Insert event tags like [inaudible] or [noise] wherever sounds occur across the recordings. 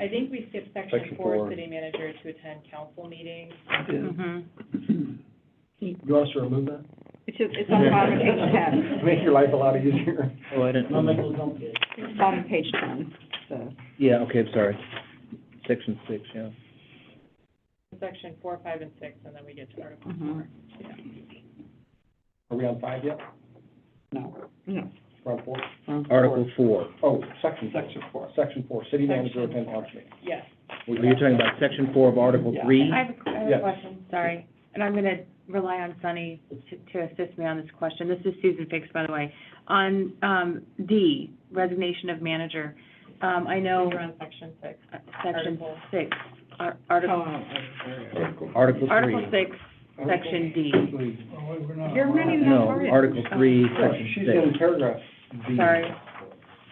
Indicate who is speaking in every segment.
Speaker 1: I think we skipped section
Speaker 2: Section
Speaker 1: four,
Speaker 2: four.
Speaker 1: city manager to attend council meetings.
Speaker 2: You want us to remove that? [laughs]
Speaker 3: It's, just- it's on the bottom of page ten.
Speaker 2: Make your life a lot easier.
Speaker 4: Oh, I didn't,
Speaker 3: It's bottom of page ten, so.
Speaker 4: yeah, okay, I'm sorry. Section six, yeah.
Speaker 1: Section four, five, and six, and then we get to article
Speaker 3: Mhm.
Speaker 1: four.
Speaker 2: Are we on five yet?
Speaker 3: No. No.
Speaker 2: We're on four?
Speaker 4: Article four.
Speaker 2: Oh, section. Section four. Section four, city manager attend launch meeting.
Speaker 1: Yes.
Speaker 4: Well, You're talking about section four of Article
Speaker 2: Yeah.
Speaker 4: three?
Speaker 5: I have a, I have
Speaker 2: Yes.
Speaker 5: a question, sorry, and I'm gonna rely on Sunny to, to assist me on this question. This is Susan Fix, by the way. On, um, D, resignation of manager, um, I know,
Speaker 1: We're on section six.
Speaker 5: uh, section
Speaker 1: Article.
Speaker 5: six, ar- article,
Speaker 4: Article
Speaker 5: article
Speaker 4: three.
Speaker 5: six, section D.
Speaker 3: You're running that
Speaker 4: No,
Speaker 3: hard.
Speaker 4: Article three,
Speaker 2: Yeah, She's in
Speaker 4: section
Speaker 2: paragraph B.
Speaker 5: Sorry,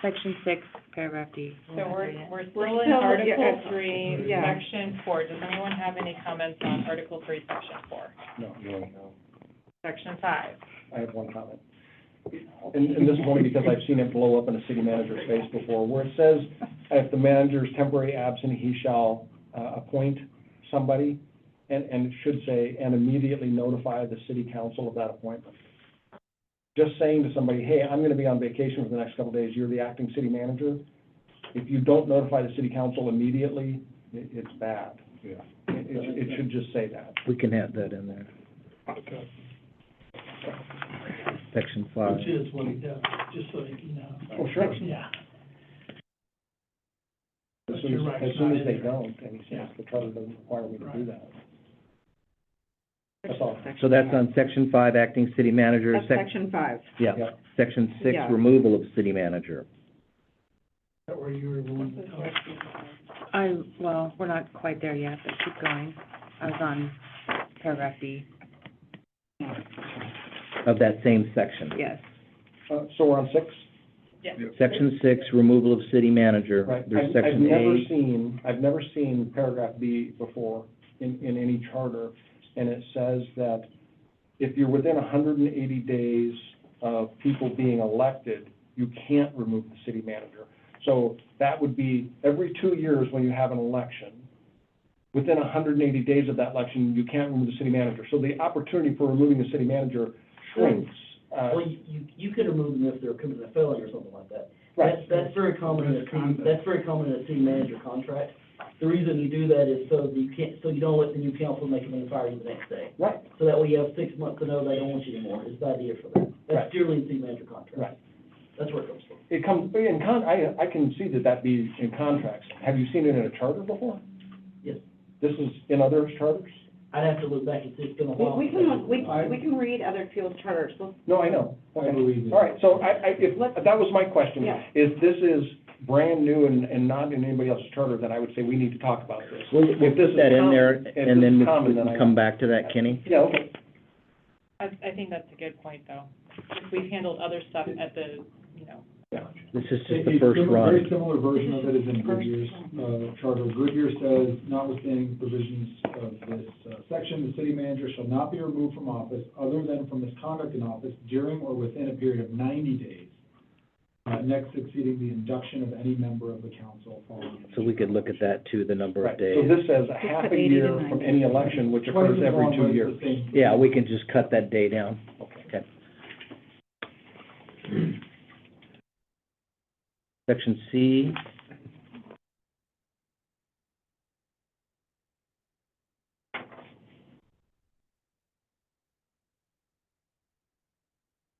Speaker 5: section six, paragraph D.
Speaker 1: So we're, we're still
Speaker 3: We're
Speaker 1: in
Speaker 3: still- yeah,
Speaker 1: article
Speaker 3: it's-
Speaker 1: three,
Speaker 3: yeah.
Speaker 1: section four. Does anyone have any comments on article three, section four?
Speaker 2: No, no, no.
Speaker 1: Section five.
Speaker 2: I have one comment. And, and this is only because I've seen it blow up in a city manager's face before, where it says, if the manager is temporarily absent, he shall, uh, appoint somebody, and, and it should say, and immediately notify the city council of that appointment. Just saying to somebody, hey, I'm gonna be on vacation for the next couple of days, you're the acting city manager, if you don't notify the city council immediately, it, it's bad. Yeah. It, it- it should just say that.
Speaker 4: We can have that in there. Section five.
Speaker 6: Which is what he does, just so you know.
Speaker 2: Oh, sure.
Speaker 6: Yeah.
Speaker 2: As
Speaker 6: But
Speaker 2: soon
Speaker 6: you're
Speaker 2: as,
Speaker 6: right,
Speaker 2: as
Speaker 6: it's
Speaker 2: soon
Speaker 6: not
Speaker 2: as
Speaker 6: in
Speaker 2: they
Speaker 6: there.
Speaker 2: don't, and he says the charter doesn't require me to do that. That's all.
Speaker 4: So that's on section five, acting city manager,
Speaker 3: That's
Speaker 4: sec-
Speaker 3: section five.
Speaker 4: yeah.
Speaker 2: Yeah.
Speaker 4: Section six,
Speaker 3: Yeah.
Speaker 4: removal of city manager.
Speaker 6: That where you were the one that told.
Speaker 5: I, well, we're not quite there yet, but keep going. I was on paragraph D,
Speaker 4: of that same section.
Speaker 5: yes.
Speaker 2: Uh, so we're on six,
Speaker 1: Yes.
Speaker 4: Section six, removal of city manager.
Speaker 2: right? I've-
Speaker 4: There's section
Speaker 2: I've never
Speaker 4: A.
Speaker 2: seen, I've never seen paragraph B before in, in any charter, and it says that if you're within hundred and eighty days of people being elected, you can't remove the city manager. So that would be every two years when you have an election, within hundred and eighty days of that election, you can't remove the city manager. So the opportunity for removing the city manager shrinks. uh,
Speaker 7: Well, you, you- you could remove them if they're committing a felony or something like that.
Speaker 2: Right.
Speaker 7: That's, that's very common in a city,
Speaker 6: Misconduct.
Speaker 7: that's very common in a city manager contract. The reason you do that is so that you can't, so you don't let the new council make them and fire you the next day.
Speaker 2: Right,
Speaker 7: So that way you have six months to know they don't want you anymore, is the idea for that.
Speaker 2: Right.
Speaker 7: That's purely in city manager contract.
Speaker 2: right.
Speaker 7: That's where it comes from.
Speaker 2: It comes, in con, I, I can see that that be in contracts. Have you seen it in a charter before?
Speaker 7: Yes.
Speaker 2: This is in other charters?
Speaker 7: I'd have to look back and see, it's been a
Speaker 3: We,
Speaker 7: while.
Speaker 3: we can, we, we can read other field charters, We'll-
Speaker 2: No, I know.
Speaker 7: I believe you.
Speaker 2: All right, so I, I, if, that was my question.
Speaker 3: Yeah.
Speaker 2: Is this is brand new and, and not in anybody else's charter, then I would say we need to talk about this.
Speaker 4: We'll, we'll
Speaker 2: If this
Speaker 4: put
Speaker 2: is
Speaker 4: that in there,
Speaker 2: common- if
Speaker 4: and
Speaker 2: this
Speaker 4: then
Speaker 2: is
Speaker 4: we
Speaker 2: common,
Speaker 4: we
Speaker 2: then I-
Speaker 4: can come back to that, Kenny.
Speaker 2: Yeah, okay.
Speaker 1: I, I think that's a good point, though. We've handled other stuff at the, you know,
Speaker 2: Yeah.
Speaker 4: This is just the first
Speaker 8: Very
Speaker 4: run.
Speaker 8: similar version of it is in Goodyear's uh, charter. Goodyear says, notwithstanding provisions of this uh, section, the city manager shall not be removed from office other than for misconduct in office during or within a period of ninety days, uh, next succeeding the induction of any member of the council following.
Speaker 4: So we could look at that too, the number
Speaker 2: Right,
Speaker 4: of
Speaker 2: so
Speaker 4: days.
Speaker 2: this says a half
Speaker 3: put
Speaker 2: a
Speaker 3: 80 to
Speaker 2: year from
Speaker 3: 90.
Speaker 2: any election, which occurs every two years.
Speaker 4: Yeah, we can just cut that day down. Okay. Section C.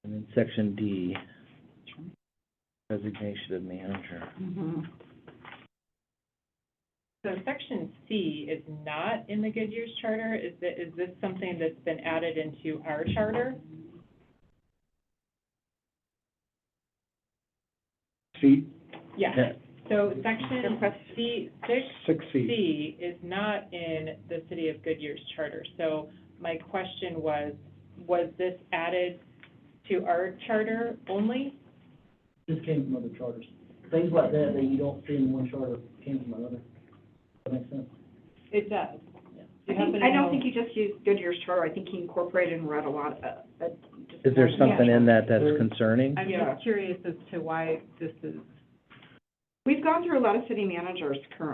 Speaker 4: And then section D. Resignation of manager.
Speaker 3: Mm-hmm.
Speaker 1: So section C is not in the Goodyear's charter, is thi- is this something that's been added into our charter?
Speaker 2: C,
Speaker 1: Yeah,
Speaker 4: Yeah.
Speaker 1: so section
Speaker 3: Request-
Speaker 1: C, six
Speaker 2: six C.
Speaker 1: C is not in the city of Goodyear's charter. So my question was, was this added to our charter only?
Speaker 7: This came from other charters. Things like that that you don't see in one charter came from another. That makes sense.
Speaker 1: It does.
Speaker 3: I think- I don't think you just used Goodyear's charter, I think he incorporated and read a lot of, uh, just-
Speaker 4: Is there something in that
Speaker 7: There-
Speaker 4: that's concerning?
Speaker 3: I'm just
Speaker 1: curious as to why this is
Speaker 3: We've gone through a lot of city managers currently.